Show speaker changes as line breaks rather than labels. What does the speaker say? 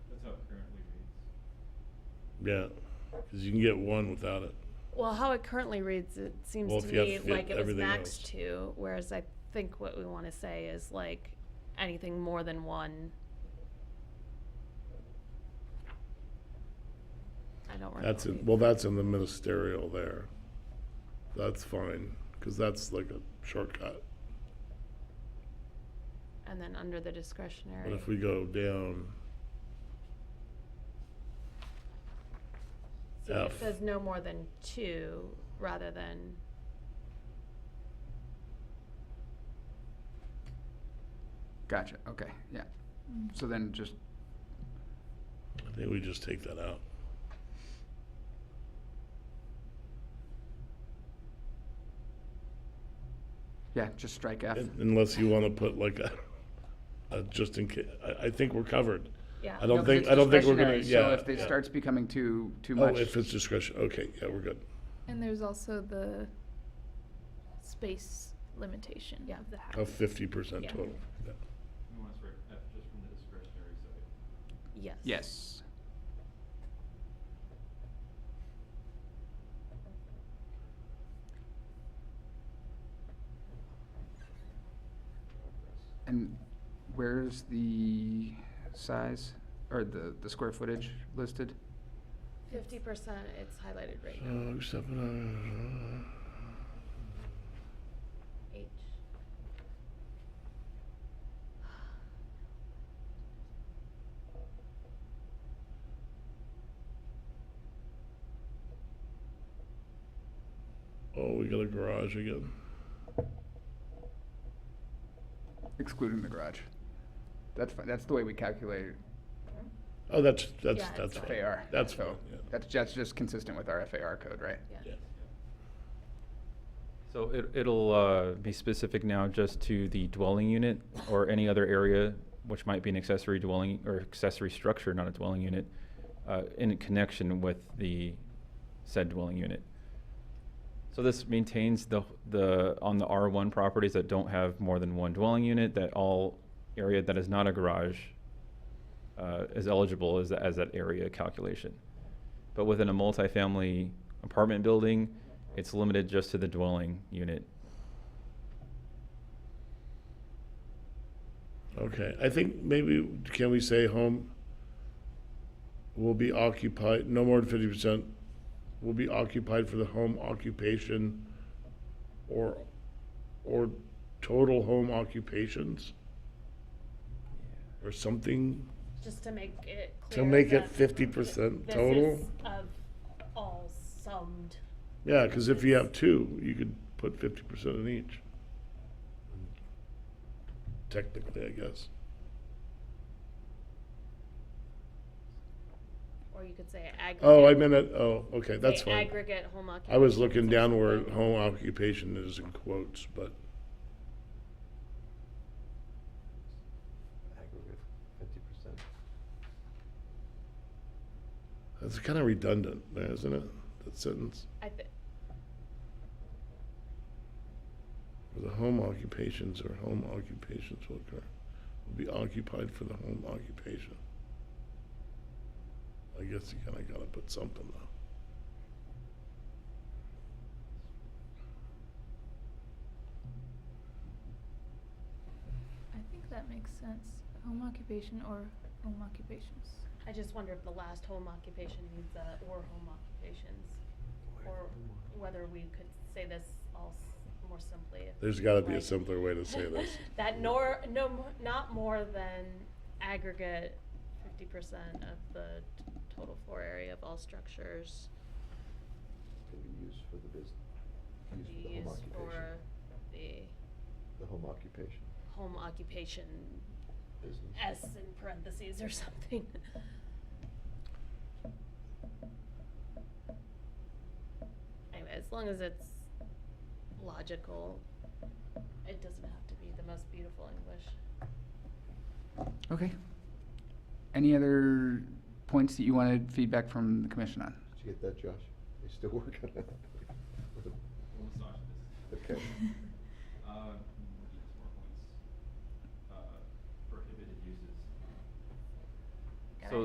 Yeah, because you can get one without it.
Well, how it currently reads, it seems
Well,
to
if you have
me
to fit
like it was
everything
max
else.
two, whereas I think what we want to say is like anything more than one. I don't remember.
That's in, well, that's in the ministerial there. That's fine, because that's like a shortcut.
And then under the
But
discretionary,
if we go down,
so it
F.
says no more than two rather than,
Gotcha, okay, yeah. So then just,
I think we just take that out.
yeah, just strike F.
Un- Unless you want to put like a, a just in case, I, I think we're covered.
yeah.
I don't
No, 'cause
think-
it's
I don't think we're gonna-
discretionary, So
yeah,
if it
yeah.
starts becoming too, too
Oh,
much.
if it's discretion, okay, yeah, we're good.
And there's also the space limitation
Yeah.
of the house.
Of fifty percent
Yeah.
total. Yeah.
We want to strike F just from the discretionary side.
Yes.
Yes. And where's the size or the, the square footage listed?
Fifty percent, it's highlighted right now,
So, except, uh,
H.
oh, we got a garage again.
Excluding the garage. That's fine, that's the way we calculate it.
Hmm?
Oh, that's, that's,
Yeah, it's
that's
fine.
fine.
FAR.
That's
so
fine, yeah.
That's, that's just consistent with our FAR code, right?
Yeah.
Yeah.
So it, it'll uh, be specific now just to the dwelling unit or any other area which might be an accessory dwelling or accessory structure, not a dwelling unit, uh, in connection with the said dwelling unit. So this maintains the, the, on the R1 properties that don't have more than one dwelling unit, that all area that is not a garage uh, is eligible as, as that area calculation. But within a multifamily apartment building, it's limited just to the dwelling unit.
Okay, I think maybe, can we say home will be occupied, no more than fifty percent will be occupied for the home occupation or, or total home occupations? Or something,
Just to make it
To
clear.
make it
that
50%
this
total?
is Of all summed.
yeah, cause if you have two, you could put fifty percent in each. Technically, I guess.
Or you could say aggregate.
Oh, I meant it, oh, okay, that's
say
fine.
Aggregate home occupation.
I was looking down where home occupation is in quotes, but
aggregate fifty percent.
that's kind of redundant there, isn't it? That sentence,
I thi-
for the home occupations or home occupations will occur, will be occupied for the home occupation. I guess you kind of gotta put something though.
I think that makes sense. Home occupation or home occupations.
I just wonder if the last home occupation needs a, or home occupations, or whether we could say this all s- more simply. if-
There's gotta be a
like-
simpler way to say this.
That nor, no, mo- not more than aggregate fifty percent of the t- total floor area of all structures
Can be used for the
can
business,
be
used
used
for the home occupation.
for the
The home occupation,
home occupation
business.
S in parentheses or something. Anyway, as long as it's logical, it doesn't have to be the most beautiful English.
Okay. Any other points that you wanted feedback from the commission on?
Did you get that, Josh? Are you still working on it?
We'll massage this.
Okay.